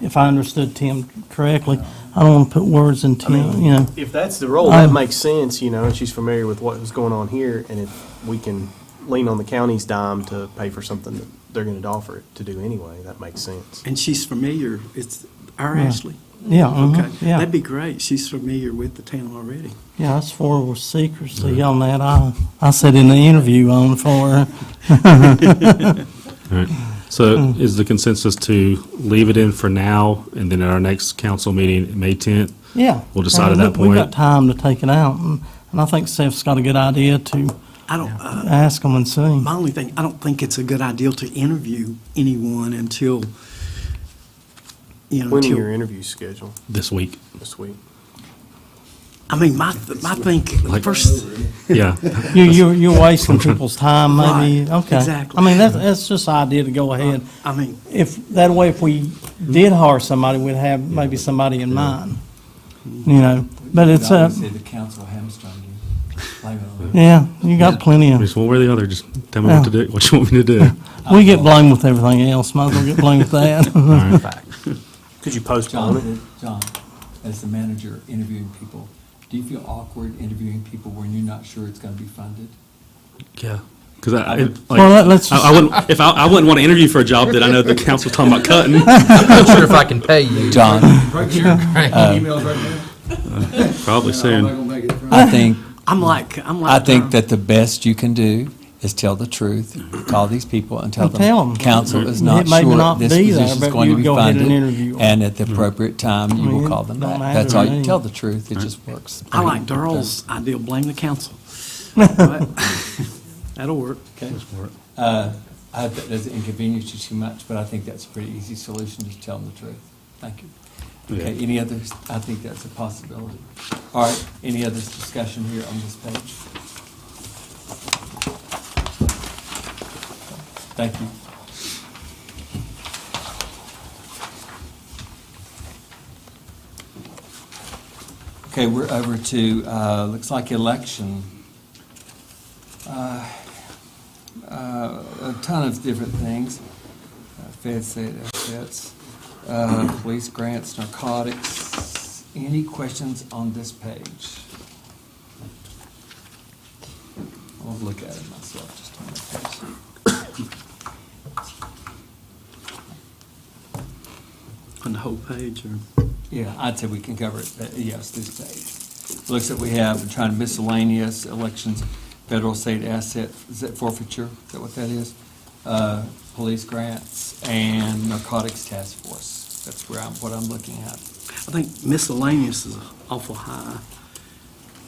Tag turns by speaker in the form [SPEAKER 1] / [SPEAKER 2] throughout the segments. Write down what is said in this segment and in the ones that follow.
[SPEAKER 1] if I understood Tim correctly. I don't want to put words in Tim, you know.
[SPEAKER 2] If that's the role, that
[SPEAKER 1] Um,
[SPEAKER 2] makes sense, you know, and she's familiar with what was going on here, and if we can lean on the county's dime to pay for something that they're gonna offer it to do anyway, that makes sense.
[SPEAKER 3] And she's familiar, it's our
[SPEAKER 1] Yeah.
[SPEAKER 3] Ashley.
[SPEAKER 1] Yeah,
[SPEAKER 3] Okay,
[SPEAKER 4] Uh-huh.
[SPEAKER 1] mhm, yeah,
[SPEAKER 3] that'd be great. She's familiar with the town already.
[SPEAKER 1] yeah, that's for with secrecy on that. I, I said in the interview on for,
[SPEAKER 5] All right. So is the consensus to leave it in for now, and then at our next council meeting, May 10th?
[SPEAKER 1] yeah.
[SPEAKER 5] We'll decide at
[SPEAKER 1] Uh,
[SPEAKER 5] that
[SPEAKER 1] look, We've got
[SPEAKER 5] point.
[SPEAKER 1] time to take it out, and, and I think Seth's got a good idea to
[SPEAKER 3] I don't, uh,
[SPEAKER 1] ask them and see.
[SPEAKER 3] my only thing, I don't think it's a good idea to interview anyone until, you know,
[SPEAKER 2] When are your
[SPEAKER 3] until,
[SPEAKER 2] interviews scheduled
[SPEAKER 5] This week.
[SPEAKER 2] this week?
[SPEAKER 3] I mean, my, th- my think,
[SPEAKER 5] Like-
[SPEAKER 3] first,
[SPEAKER 5] Yeah.
[SPEAKER 1] You, you're, you're wasting people's time, maybe,
[SPEAKER 3] Right,
[SPEAKER 1] okay.
[SPEAKER 3] exactly.
[SPEAKER 1] I mean, that's, that's just an idea to go ahead.
[SPEAKER 3] I mean,
[SPEAKER 1] If, that way, if we did hire somebody, we'd have maybe somebody in mind, you know, but it's, uh,
[SPEAKER 6] Obviously, the council hamstrung uh, you. Blame it on them.
[SPEAKER 1] yeah, you got plenty of,
[SPEAKER 5] Just one way or the other, just tell me what to do, what you want me to do.
[SPEAKER 1] we get blamed with everything else, might as well get blamed with that.
[SPEAKER 5] All right.
[SPEAKER 2] Could you postpone it?
[SPEAKER 6] John, uh, John, as the manager interviewing people, do you feel awkward interviewing people when you're not sure it's going to be funded?
[SPEAKER 5] Yeah. Because I, I- like,
[SPEAKER 1] Well, let- let's
[SPEAKER 5] I I wouldn't, if I, I wouldn't want to interview for a job that I know the council's talking about cutting.
[SPEAKER 7] not sure if I can pay you.
[SPEAKER 4] John,
[SPEAKER 8] Right here, emails right now.
[SPEAKER 5] Probably
[SPEAKER 8] I'm not
[SPEAKER 5] soon.
[SPEAKER 8] gonna make it through.
[SPEAKER 4] I think,
[SPEAKER 3] I'm like, I'm
[SPEAKER 4] I
[SPEAKER 3] like.
[SPEAKER 4] think
[SPEAKER 3] Tom.
[SPEAKER 4] that the best you can do is tell the truth, call these people and tell
[SPEAKER 1] And tell
[SPEAKER 4] them,
[SPEAKER 1] 'em.
[SPEAKER 4] council is
[SPEAKER 1] It
[SPEAKER 4] not
[SPEAKER 1] may
[SPEAKER 4] sure
[SPEAKER 1] not
[SPEAKER 4] this
[SPEAKER 1] be there,
[SPEAKER 4] position's
[SPEAKER 1] but
[SPEAKER 4] going to
[SPEAKER 1] you
[SPEAKER 4] be
[SPEAKER 1] go ahead and
[SPEAKER 4] funded.
[SPEAKER 1] interview 'em.
[SPEAKER 4] And at the appropriate time, you
[SPEAKER 1] mean,
[SPEAKER 4] will call them
[SPEAKER 1] don't
[SPEAKER 4] back.
[SPEAKER 1] matter
[SPEAKER 4] That's
[SPEAKER 1] to
[SPEAKER 4] all,
[SPEAKER 1] me.
[SPEAKER 4] you tell the truth, it just works.
[SPEAKER 3] I like Darrell's idea, blame the council. But- That'll work.
[SPEAKER 6] Okay. Uh, I hope that doesn't inconvenience you too much, but I think that's a pretty easy solution, just tell them the truth. Thank you. Okay, any others? I think that's a possibility. All right, any other discussion here on this page? Thank you. Okay, we're over to, uh, looks like election. Uh, uh, A ton of different things. Uh, Feds, state assets, uh, police grants, narcotics. Any questions on this page? I'll look at it myself just on that page.
[SPEAKER 3] On the whole page, or?
[SPEAKER 6] Yeah, I'd say we can cover it, but yes, this page. Looks like we have, we're trying to miscellaneous elections, federal, state asset, is that forfeiture, is that what that is? Uh, Police grants and narcotics task force, that's where I'm, what I'm looking at.
[SPEAKER 3] I think miscellaneous is awful high,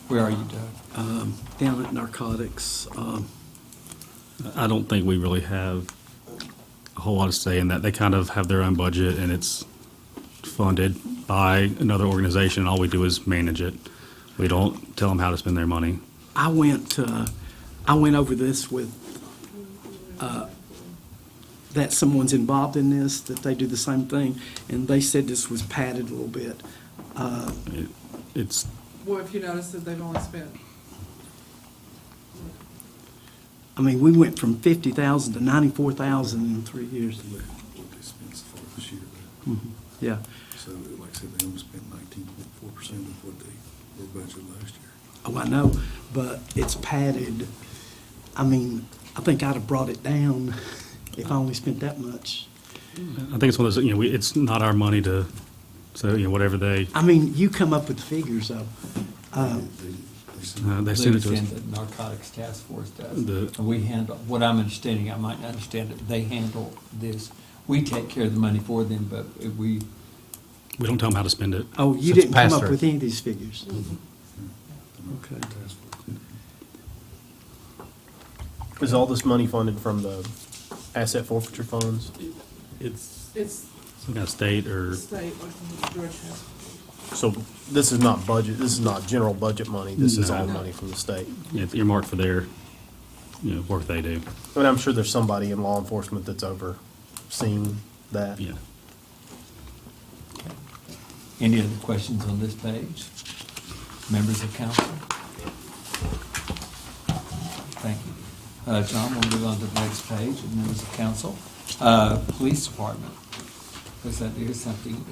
[SPEAKER 6] Where are you, Doug?
[SPEAKER 3] um, down at narcotics, um,
[SPEAKER 5] I don't think we really have a whole lot of say in that. They kind of have their own budget and it's funded by another organization. All we do is manage it. We don't tell them how to spend their money.
[SPEAKER 3] I went, uh, I went over this with, uh, that someone's involved in this, that they do the same thing, and they said this was padded a little bit. Uh,
[SPEAKER 5] It's,
[SPEAKER 9] Well, if you notice that they've only spent,
[SPEAKER 3] I mean, we went from fifty thousand to ninety-four thousand in three years.
[SPEAKER 8] They spent so far this year,
[SPEAKER 3] Yeah,
[SPEAKER 8] but- so like I said, they only spent nineteen point four percent of what they were budgeted last year.
[SPEAKER 3] oh, I know, but it's padded. I mean, I think I'd have brought it down if I only spent that much.
[SPEAKER 5] I think it's one of those, you know, we, it's not our money to, so, you know, whatever they,
[SPEAKER 3] I mean, you come up with the figures, though. Uh,
[SPEAKER 8] They- they said-
[SPEAKER 5] uh, they send it to us.
[SPEAKER 6] Luke's in The narcotics task force does.
[SPEAKER 5] The-
[SPEAKER 6] And we handle, what I'm understanding, I might not understand it, they handle this. We take care of the money for them, but we,
[SPEAKER 5] We don't tell them how to spend it.
[SPEAKER 3] Oh, you
[SPEAKER 7] It's
[SPEAKER 3] didn't come up
[SPEAKER 7] pass-through.
[SPEAKER 3] with any of these figures? Okay.
[SPEAKER 2] Is all this money funded from the asset forfeiture funds?
[SPEAKER 5] It's
[SPEAKER 9] it's
[SPEAKER 5] some kind of state or,
[SPEAKER 9] state, like Georgia has.
[SPEAKER 2] So this is not budget, this is not general budget money, this is all
[SPEAKER 5] No.
[SPEAKER 2] money from the state.
[SPEAKER 5] you know, it's earmarked for their, you know, work they do.
[SPEAKER 2] I mean, I'm sure there's somebody in law enforcement that's overseeing that.
[SPEAKER 5] Yeah.
[SPEAKER 6] any other questions on this page? Members of council? Thank you. Uh, John, we'll move on to the next page, members of council. Uh, Police department, because that is something